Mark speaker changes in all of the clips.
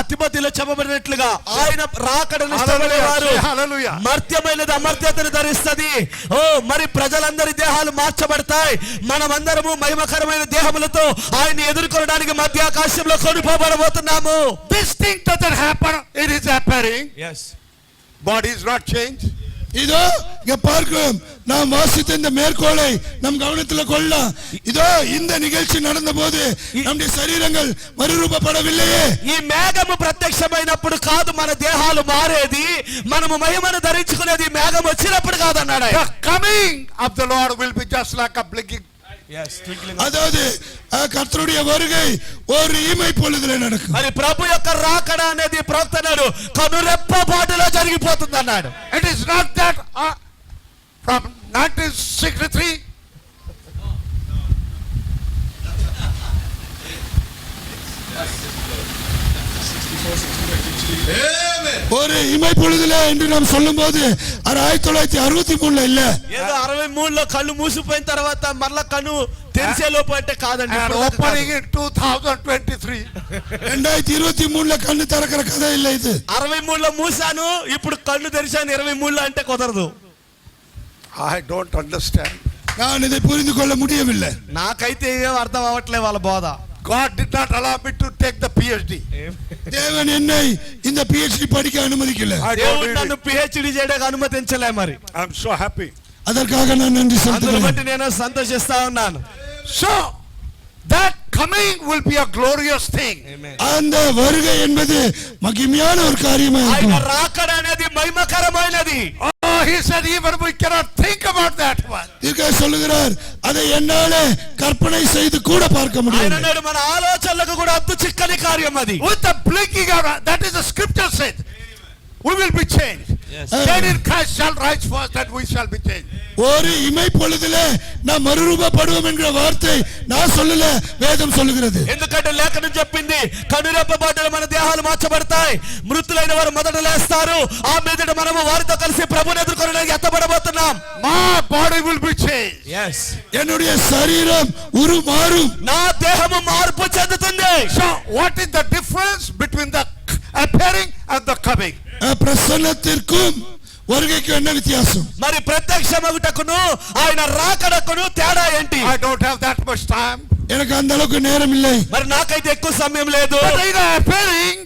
Speaker 1: అతిమతిలో చెప్పబడినట్లుగా ఆయన రాకడను ఇష్టపడేవారు
Speaker 2: Hallelujah. Hallelujah.
Speaker 1: మర్త్యమైనది అమర్త్యతను ధరిస్తది ఓ మరి ప్రజలందరి దేహాలు మార్చబడతాయి మనమందరము మహిమకరమైన దేహములతో ఆయన ఎదుర్కొనడానికి మధ్య ఆకాశంలో కొనుపోబడబోతున్నాము
Speaker 2: This thing doesn't happen, it is happening. Body is not changed.
Speaker 3: இதோ இங்க பார்க்கிறோம் நாம் வாசித்த இந்த மேற்கோளை நம் கவனத்துல கொள்ள இதோ இந்த நிகழ்ச்சி நடந்தபோது நம்முடைய சரீரங்கள் மறுரூபப்படவில்லையே
Speaker 1: ఈ మేఘము ప్రత్యక్షమైనప్పుడు కాదు మన దేహాలు మారేది మనము మహిమను ధరించుకునేది మేఘం వచ్చినప్పుడు కాదన్నాడు ఆయన.
Speaker 2: The coming of the Lord will be just like a blinking.
Speaker 3: அதாவது அஹ், கர்த்தருடைய வருகை ஒரு இமை பொழுதுல நடக்கும்
Speaker 1: మరి ప్రభు యొక్క రాకడ అనేది ప్రవక్తనాడు కనురెప్ప పాటులో జరిగిపోతుంది అన్నాడు
Speaker 2: It is not that uh, from 1963
Speaker 3: ஒரு இமை பொழுதுல என்று நாம் சொல்லும்போது அது ஆயிரத்தி தொள்ளாயிரத்தி அறுபத்தி மூணுல இல்ல
Speaker 1: ఏదో అరవై మూడులో కళ్ళు మూసిపోయిన తర్వాత మరలా కన్ను తెరిసే లోపు అంటే కాదండి
Speaker 2: and
Speaker 1: ఇప్పుడు దాకా కాదు.
Speaker 2: opening in 2023.
Speaker 3: ரெண்டாயிரத்தி இருபத்தி மூணுல కన్ను திறக்கிற கதை இல்ல இது
Speaker 1: అరవై మూడులో మూసాను ఇప్పుడు కళ్ళు తెరిచాను ఇరవై మూడులో అంటే కుదరదు
Speaker 2: I don't understand.
Speaker 3: நான் இதை புரிந்து கொள்ள முடியவில்லை
Speaker 1: నాకైతే ఏం అర్థం అవ్వట్లే వాళ్ళ బోధ
Speaker 2: God did not allow me to take the PhD.
Speaker 3: தேவன் என்னை இந்த PhD படிக்க அனுமதிக்கல
Speaker 2: I don't
Speaker 1: దేవుడు
Speaker 2: need
Speaker 1: నన్ను
Speaker 2: it.
Speaker 1: పిహెచ్డి చేయడానికి అనుమతించలే మరి
Speaker 2: I'm so happy.
Speaker 3: அதற்காக நான் நன்றி
Speaker 1: అందును
Speaker 3: செலுத்துகிறேன்
Speaker 1: బట్టి నేను సంతోషిస్తా ఉన్నాను
Speaker 2: So, that coming will be a glorious thing.
Speaker 3: அந்த வருகை என்பது மகிமையான ஒரு காரியமா
Speaker 1: ఆయన
Speaker 3: இருக்கும்
Speaker 1: రాకడ అనేది మహిమకరమైనది
Speaker 2: Oh, he said, even we cannot think about that one.
Speaker 3: தீர்க்க சொல்லுகிறார் அதை என்னால கற்பனை செய்து கூட பார்க்க
Speaker 1: ఆయన
Speaker 3: முடியும்
Speaker 1: అన్నాడు మన ఆలోచనలకు కూడా అంతు చిక్కని కార్యం అది
Speaker 2: With the blinking of eye, that is the scripture said. We will be changed. Then in Christ shall rise first, and we shall be changed.
Speaker 3: ஒரு இமை பொழுதுல நாம் மறுரூபப்படுவோம் என்கிற வார்த்தை நான் சொல்லல வேதம் சொல்லுகிறது
Speaker 1: ఎందుకంటే లేఖనం చెప్పింది కనురెప్ప బాటలు మన దేహాలు మార్చబడతాయి మృతులైన వారు మొదట లేస్తారు ఆ మీదట మనము వారితో కలిసి ప్రభుని ఎదుర్కొనడానికి ఎత్తబడబోతున్నాం
Speaker 2: My body will be changed.
Speaker 3: என்னுடைய சரீரம் உரு மாறும்
Speaker 1: నా దేహము మార్పు చెందుతుంది
Speaker 2: So, what is the difference between the appearing and the coming?
Speaker 3: அஹ், பிரசன்னத்திற்கும் வருகைக்கும் என்ன வித்தியாசம்
Speaker 1: మరి ప్రత్యక్షమగుటకును ఆయన రాకడకును తేడా ఏంటి
Speaker 2: I don't have that much time.
Speaker 3: எனக்கு அந்த அளவுக்கு நேரம் இல்லை
Speaker 1: మరి నాకైతే ఎక్కువ సమయం లేదు
Speaker 2: But in the appearing,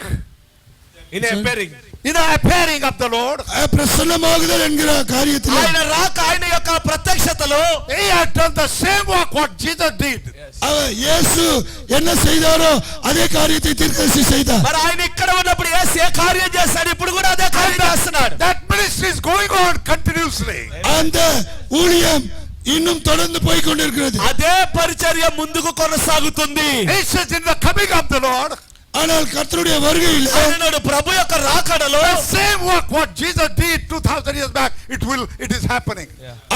Speaker 2: in the appearing of the Lord,
Speaker 3: அஹ், பிரசன்னமாகுதல் என்கிற காரியத்தில்
Speaker 1: ఆయన రాక ఆయన యొక్క ప్రత్యక్షతలో
Speaker 2: he had done the same work what Jesus did.
Speaker 3: அவர் இயேசு என்ன செய்தாரோ அதே காரியத்தை தீர்க்கதரிசி செய்தார்
Speaker 1: మరి ఆయన ఇక్కడ ఉన్నప్పుడు ఏసు ఏ కార్యం చేస్తాడు ఇప్పుడు కూడా అదే కార్యం చేస్తున్నాడు
Speaker 2: That ministry is going on continuously.
Speaker 3: அந்த ஊழியம் இன்னும் தொடர்ந்து போய் கொண்டிருக்கிறது
Speaker 1: అదే పరిచర్య ముందుకు కొనసాగుతుంది
Speaker 2: He says, in the coming of the Lord,
Speaker 3: ஆனால் கர்த்தருடைய வருகையில்
Speaker 1: ఆయనను ప్రభు యొక్క రాకడలో
Speaker 2: the same work what Jesus did 2000 years back, it will, it is happening.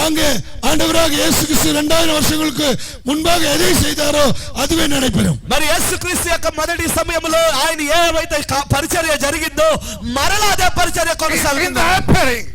Speaker 3: அங்கே ஆண்டவராக இயேசு கிறிஸ்து இரண்டாயிரம் வருஷங்களுக்கு முன்பாக எதை செய்தாரோ அதுவே நடைபெறும்
Speaker 1: మరి యేసుక్రీస్తు యొక్క మొదటి సమయంలో ఆయన ఏమైతే కా- పరిచర్య జరిగిందో మరలా అదే పరిచర్య
Speaker 2: In
Speaker 1: కొనసాగుతుంది
Speaker 2: the appearing,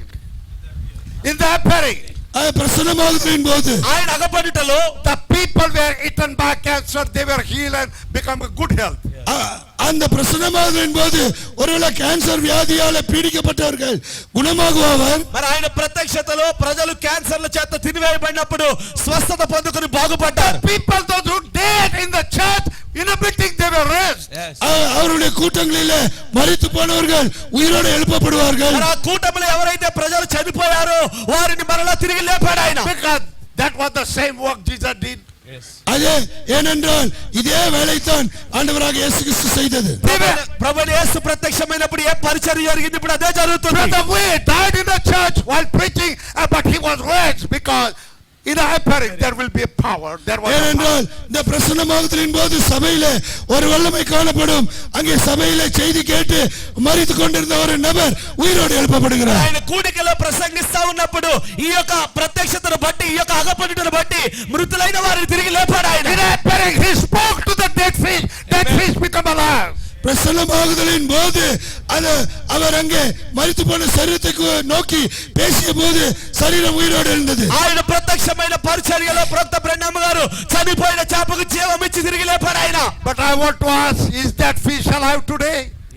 Speaker 2: in the appearing,
Speaker 3: அது பிரசன்னமாகுதலின் போது
Speaker 1: ఆయన అగపడుటలో
Speaker 2: the people were eaten by cancer, they were healed and become a good health.
Speaker 3: அ- அந்த பிரசன்னமாகுதலின் போது ஒருவேளை கேன்சர் வியாதியால பீடிக்கப்பட்டவர்கள் குணமாகுவார்
Speaker 1: మరి ఆయన ప్రత్యక్షతలో ప్రజలు క్యాన్సర్ల చేత తినివేయబడినప్పుడు స్వస్థత పొందుకుని బాగుపడ్డారు
Speaker 2: People those who dead in the church, in a meeting they were raised.
Speaker 3: அ- அவருடைய கூட்டங்களிலே மறித்து போனவர்கள் உயிரோடு எழுப்பப்படுவார்கள்
Speaker 1: మరి ఆ కూటమిలో ఎవరైతే ప్రజలు చనిపోయారో వారిని మరలా తిరిగి లేపాడు ఆయన
Speaker 2: Because that was the same work Jesus did.
Speaker 3: அதே ஏனென்றால் இதே வேலைத்தான் ஆண்டவராக இயேசு கிறிஸ்து செய்தது
Speaker 1: ప్రభు యేసు ప్రత్యక్షమైనప్పుడు ఏ పరిచర్య జరిగింది ఇప్పుడు అదే జరుగుతుంది
Speaker 2: Brother Wade died in the church while preaching, uh, but he was raised because in the appearing there will be a power. There was a power.
Speaker 3: ஏனென்றால் இந்த பிரசன்னமாகத்தின் போது சபையிலே ஒரு வல்லமை காணப்படும் அங்கே சபையிலே செய்தி கேட்டு மறித்து கொண்டிருந்த ஒரு நபர் உயிரோடு எழுப்பப்படுகிறார்
Speaker 1: ఆయన కూడికలో ప్రసంగిస్తా ఉన్నప్పుడు ఈ యొక్క ప్రత్యక్షతను బట్టి ఈ యొక్క అగపడుటను బట్టి మృతులైన వారిని తిరిగి లేపాడు ఆయన
Speaker 2: In the appearing, he spoke to the dead fish. Dead fish become alive.
Speaker 3: பிரசன்னமாகுதலின் போது அது அவர் அங்கே மறித்து போன சரீரத்துக்கு நோக்கி பேசிய போது சரீரம் உயிரோடு எழுந்தது
Speaker 1: ఆయన ప్రత్యక్షమైన పరిచర్యలో ప్రొక్త బ్రహ్మ గారు చనిపోయిన చేపకు జీవం ఇచ్చి తిరిగి లేపాడు ఆయన
Speaker 2: But I want to ask, is that fish alive today?